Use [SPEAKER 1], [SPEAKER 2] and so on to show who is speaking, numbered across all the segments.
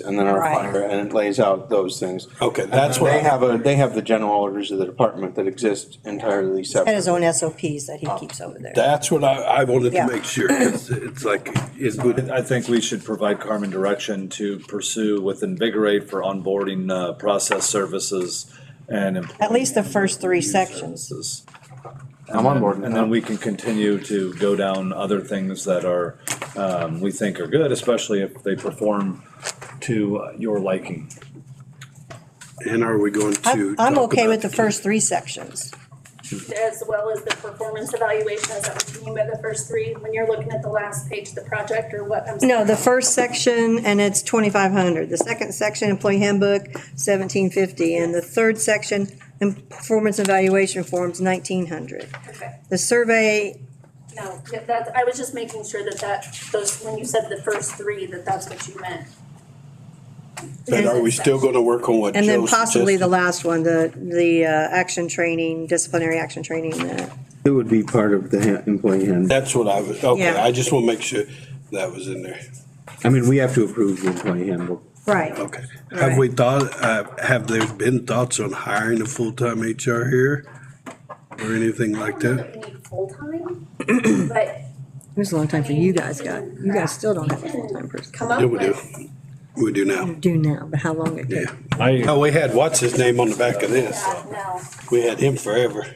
[SPEAKER 1] and then our
[SPEAKER 2] Right.
[SPEAKER 1] fire, and it lays out those things.
[SPEAKER 3] Okay, that's
[SPEAKER 1] And
[SPEAKER 3] what
[SPEAKER 1] They
[SPEAKER 3] I,
[SPEAKER 1] have a, they have the general orders of the department that exist entirely
[SPEAKER 2] had
[SPEAKER 1] separate.
[SPEAKER 2] his own SOPs that he keeps over there.
[SPEAKER 3] that's what I, I wanted
[SPEAKER 2] Yeah.
[SPEAKER 3] to make sure. It's, it's like, is good.
[SPEAKER 4] I think we should provide Carmen direction to pursue with Invigorate for onboarding uh, process services and. employee
[SPEAKER 2] At least the first three
[SPEAKER 4] review
[SPEAKER 2] sections.
[SPEAKER 4] services.
[SPEAKER 1] I'm on board with
[SPEAKER 4] And
[SPEAKER 1] that.
[SPEAKER 4] then we can continue to go down other things that are, um, we think are good, especially if they perform to your liking.
[SPEAKER 3] And are we going to?
[SPEAKER 2] I'm, I'm
[SPEAKER 3] talk
[SPEAKER 2] okay
[SPEAKER 3] about-
[SPEAKER 2] with the first three sections.
[SPEAKER 5] as well as the performance evaluation, is that what you mean by the first three? When you're looking at the last page of the project or what? I'm sorry.
[SPEAKER 2] No, the first section, and it's twenty-five hundred. The second section, employee handbook, seventeen fifty. And the third section, em- performance evaluation forms, nineteen hundred.
[SPEAKER 5] Okay.
[SPEAKER 2] The survey,
[SPEAKER 5] No, yeah, that, I was just making sure that that, those, when you said the first three, that that's what you meant.
[SPEAKER 3] But are we still gonna work on what Joe
[SPEAKER 2] and then possibly the
[SPEAKER 3] suggested?
[SPEAKER 2] last one, the, the, uh, action training, disciplinary action training, that.
[SPEAKER 1] It would be part of the ha- employee handbook.
[SPEAKER 3] That's what I was, okay,
[SPEAKER 2] Yeah.
[SPEAKER 3] I just wanna make sure that was in there.
[SPEAKER 1] I mean, we have to approve the employee handbook.
[SPEAKER 2] Right.
[SPEAKER 3] Okay.
[SPEAKER 2] Right.
[SPEAKER 3] Have we thought, uh, have there been thoughts on hiring a full-time HR here? Or anything like
[SPEAKER 5] I
[SPEAKER 3] that?
[SPEAKER 5] don't know that we need full-time, but
[SPEAKER 2] It was a long time for you guys, got, you guys still don't have a full-time person.
[SPEAKER 5] come up
[SPEAKER 3] Yeah, we do.
[SPEAKER 5] with,
[SPEAKER 3] We do now.
[SPEAKER 2] Do now, but how long it
[SPEAKER 3] Yeah.
[SPEAKER 2] took.
[SPEAKER 4] I,
[SPEAKER 3] Oh, we had, what's his name on the back of this?
[SPEAKER 5] yeah, no.
[SPEAKER 3] We had him forever.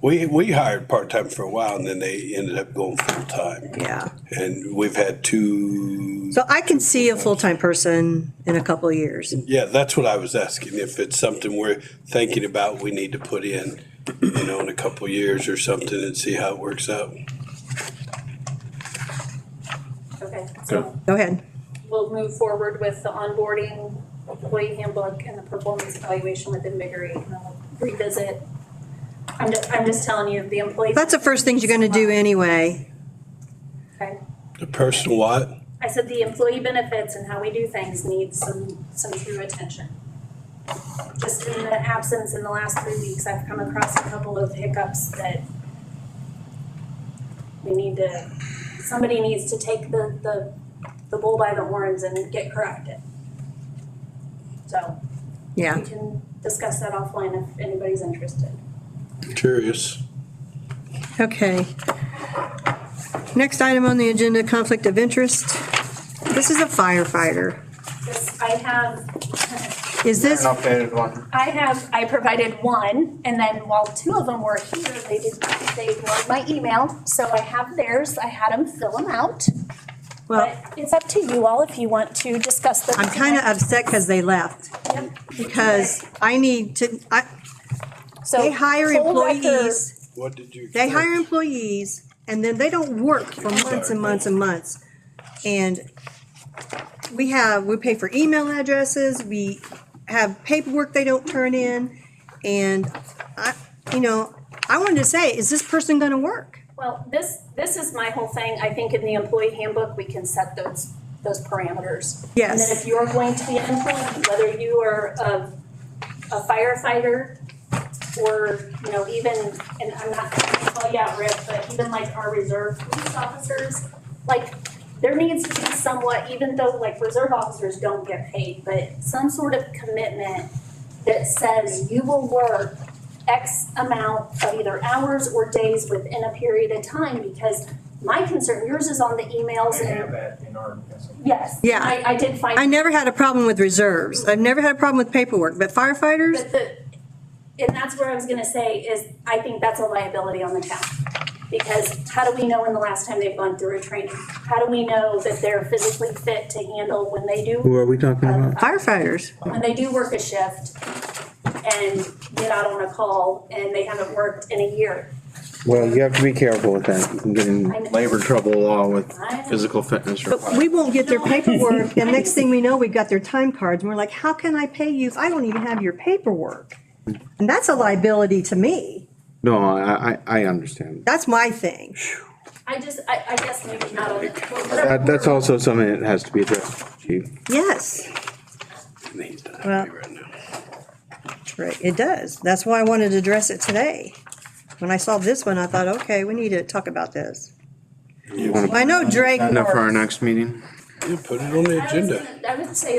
[SPEAKER 3] We, we hired part-time for a while and then they ended up going full-time.
[SPEAKER 2] Yeah.
[SPEAKER 3] And we've had two,
[SPEAKER 2] So I can see a full-time person in a couple of years.
[SPEAKER 3] yeah, that's what I was asking, if it's something we're thinking about, we need to put in, you know, in a couple years or something and see how it works out.
[SPEAKER 5] Okay, so
[SPEAKER 2] Go ahead.
[SPEAKER 5] we'll move forward with the onboarding, employee handbook, and the performance evaluation with Invigorate. and I'll Revisit. I'm just, I'm just telling you, the employee.
[SPEAKER 2] That's the first things you're gonna do anyway.
[SPEAKER 5] Okay.
[SPEAKER 3] The personal what?
[SPEAKER 5] I said the employee benefits and how we do things needs some, some true attention. Just in the absence in the last three weeks, I've come across a couple of hiccups that we need to, somebody needs to take the, the, the bull by the horns and get corrected. So
[SPEAKER 2] Yeah.
[SPEAKER 5] we can discuss that offline if anybody's interested.
[SPEAKER 3] Curious.
[SPEAKER 2] Okay. Next item on the agenda, conflict of interest. This is a firefighter.
[SPEAKER 5] This, I have
[SPEAKER 2] Is this,
[SPEAKER 1] updated one.
[SPEAKER 5] I have, I provided one, and then while two of them were here, they did, they ignored my email, so I have theirs, I had them fill them out.
[SPEAKER 2] well,
[SPEAKER 5] But it's up to you all if you want to discuss them.
[SPEAKER 2] I'm kind of upset because they left. Because I need to, I,
[SPEAKER 5] So,
[SPEAKER 2] they hire
[SPEAKER 5] full record-
[SPEAKER 2] employees.
[SPEAKER 3] What did you?
[SPEAKER 2] They hire employees and then they don't work for months and months and months. And we have, we pay for email addresses, we have paperwork they don't turn in. And I, you know, I wanted to say, is this person gonna work?
[SPEAKER 5] Well, this, this is my whole thing, I think in the employee handbook, we can set those, those parameters. And then
[SPEAKER 2] Yes.
[SPEAKER 5] if you're going to be an employee, whether you are a a firefighter or, you know, even, and I'm not gonna call you out, Rick, but even like our reserve police officers, like, there needs to be somewhat, even though like reserve officers don't get paid, but some sort of commitment that says you will work X amount of either hours or days within a period of time, because my concern, yours is on the emails
[SPEAKER 6] We
[SPEAKER 5] and,
[SPEAKER 6] have that in our,
[SPEAKER 5] yes.
[SPEAKER 2] Yeah.
[SPEAKER 5] I, I did find.
[SPEAKER 2] I never had a problem with reserves. I've never had a problem with paperwork, but firefighters,
[SPEAKER 5] But the, and that's where I was gonna say is, I think that's a liability on the town. Because how do we know when the last time they've gone through a training? How do we know that they're physically fit to handle when they do,
[SPEAKER 1] Who are we talking about?
[SPEAKER 2] firefighters.
[SPEAKER 5] when they do work a shift and get out on a call and they haven't worked in a year?
[SPEAKER 1] Well, you have to be careful with that. You can get in
[SPEAKER 5] I know.
[SPEAKER 1] labor trouble law with
[SPEAKER 5] I don't-
[SPEAKER 1] physical fitness
[SPEAKER 2] But
[SPEAKER 1] requirements.
[SPEAKER 2] we won't get their paperwork and next thing we know, we've got their time cards and we're like, how can I pay you if I don't even have your paperwork? And that's a liability to me.
[SPEAKER 1] No, I, I, I understand.
[SPEAKER 2] That's my thing.
[SPEAKER 5] I just, I, I guess maybe not on the.
[SPEAKER 1] That, that's also something that has to be addressed, chief.
[SPEAKER 2] Yes,
[SPEAKER 3] He's not
[SPEAKER 2] Well-
[SPEAKER 3] happy right now.
[SPEAKER 2] right, it does. That's why I wanted to address it today. When I saw this one, I thought, okay, we need to talk about this.
[SPEAKER 1] You wanna
[SPEAKER 2] I know Drake.
[SPEAKER 1] put that up for our
[SPEAKER 2] works.
[SPEAKER 1] next meeting?
[SPEAKER 3] Yeah, put it on the
[SPEAKER 5] I was
[SPEAKER 3] agenda.
[SPEAKER 5] gonna- I would say